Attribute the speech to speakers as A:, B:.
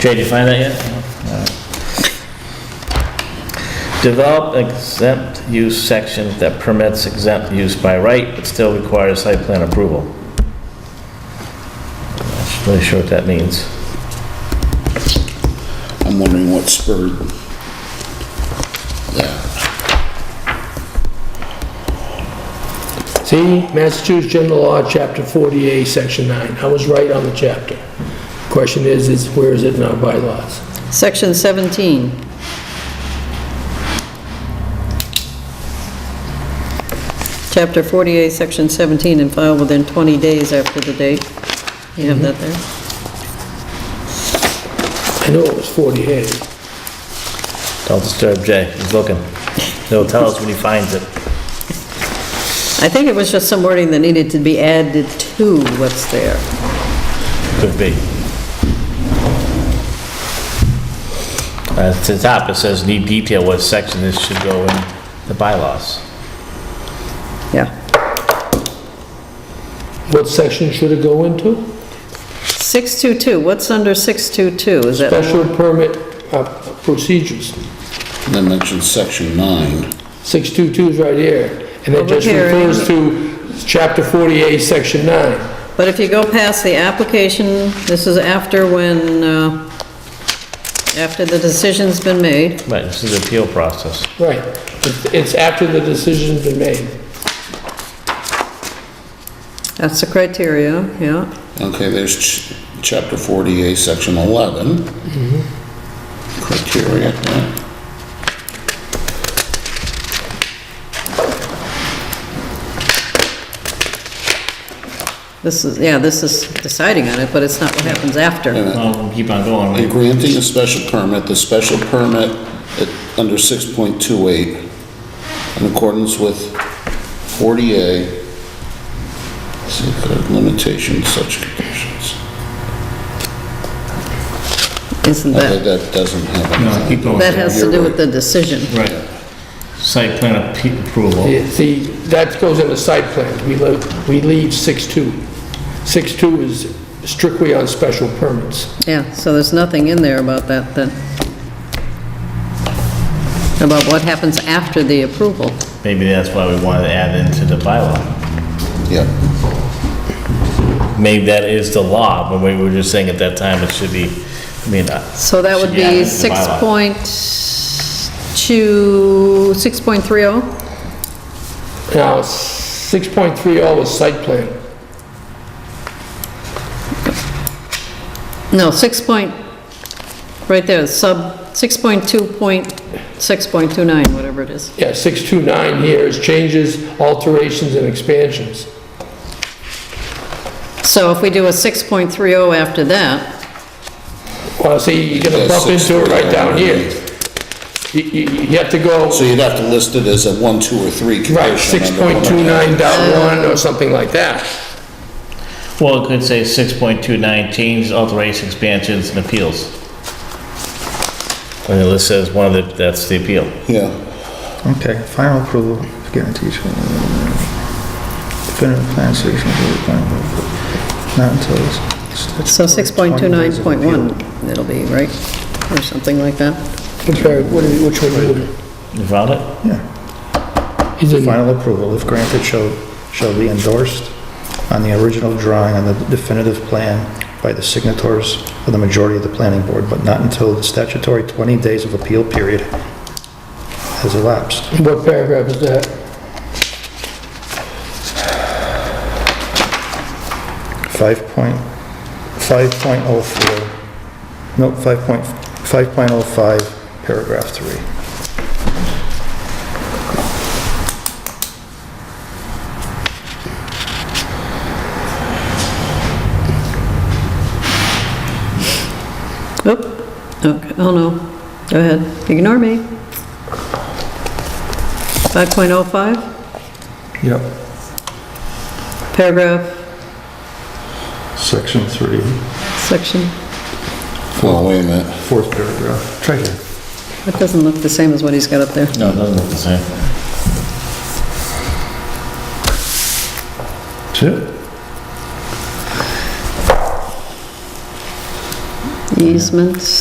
A: Jay, did you find that yet? No? Alright. Develop exempt use section that permits exempt use by right, but still requires site plan approval. Not Really sure what that means.
B: I'm wondering what spurred that.
C: See, Massachusetts General Law, Chapter 48, Section 9. I was right on the chapter. Question is, is where is it in our bylaws?
D: Section 17. Chapter 48, Section 17, and filed within 20 days after the date. You have that there?
C: I know it was 48.
A: Don't disturb Jay, he's looking. He'll tell us when he finds it.
D: I think it was just some wording that needed to be added to what's there.
A: Could be. Uh, At the top, it says need detail what section this should go in the bylaws.
D: Yeah.
C: What section should it go into?
D: 622, what's under 622? Is that,
C: Special permit uh, procedures.
B: And then mentioned section nine.
C: 622 is right here, and
D: Over
C: that just
D: here.
C: refers to Chapter 48, Section 9.
D: but if you go past the application, this is after when, uh, after the decision's been made.
A: Right, this is the appeal process.
C: Right. It's- It's after the decision's been made.
D: That's the criteria, yeah.
B: Okay, there's ch- chapter 48, section 11. Criteria, yeah.
D: This is, yeah, this is deciding on it, but it's not what happens after.
A: Well, we'll keep on going.
B: And granting a special permit, the special permit at- under 6.28 in accordance with 40A, see, there are limitations, such conditions.
D: Isn't
B: Okay,
D: that,
B: That doesn't have anything.
A: No, keep going.
D: that has to
B: You're
D: do
B: right.
D: with the decision.
A: Right. Site plan appe- approval.
C: See, that goes into site plans, we leave, we leave 6.2. 6.2 is strictly on special permits.
D: Yeah, so there's nothing in there about that then. About what happens after the approval.
A: Maybe that's why we wanted to add into the bylaw.
B: Yeah.
A: Maybe that is the law, but we were just saying at that time it should be, I mean, uh,
D: So that would
A: Should be added to
D: be
A: the
D: six
A: bylaw.
D: point two, six point three oh.
C: Now, 6.30 is site plan.
D: No, 6 point, right there, sub, 6.2 point, 6.29, whatever it is.
C: Yeah, 629 here is changes, alterations, and expansions.
D: So if we do a 6.30 after that,
C: Well, see, you're gonna
B: That's
C: bump into it right down here.
B: 6.29.
C: You, you you have to go,
B: So you'd have to list it as a one, two, or three condition.
C: right,
B: under one of the-
C: 6.29 dot 1 or something like that.
A: well, it could say 6.29, change, alteration, expansions, and appeals. And it lists says one of the, that's the appeal.
B: Yeah,
E: Okay, final approval guarantees. Definitive plan station for the plan. Not until it's.
D: So
E: statutory 20 days of appeal.
D: 6.29.1, it'll be, right? Or something like that?
C: Which one?
A: You found it?
E: Yeah,
C: He's in,
E: final approval, if granted, shall, shall be endorsed on the original drawing on the definitive plan by the signatories of the majority of the planning board, but not until the statutory 20 days of appeal period has elapsed.
C: what paragraph is that?
E: 5 point, 5.04, no, 5.5, 5.05, paragraph 3.
D: Oop, okay, oh no, go ahead, ignore me. 5.05,
E: Yep.
D: paragraph,
E: Section 3,
D: section,
B: well, wait a minute.
E: fourth paragraph. Try here.
D: that doesn't look the same as what he's got up there.
A: No, it doesn't look the same.
E: That's it.
D: easements.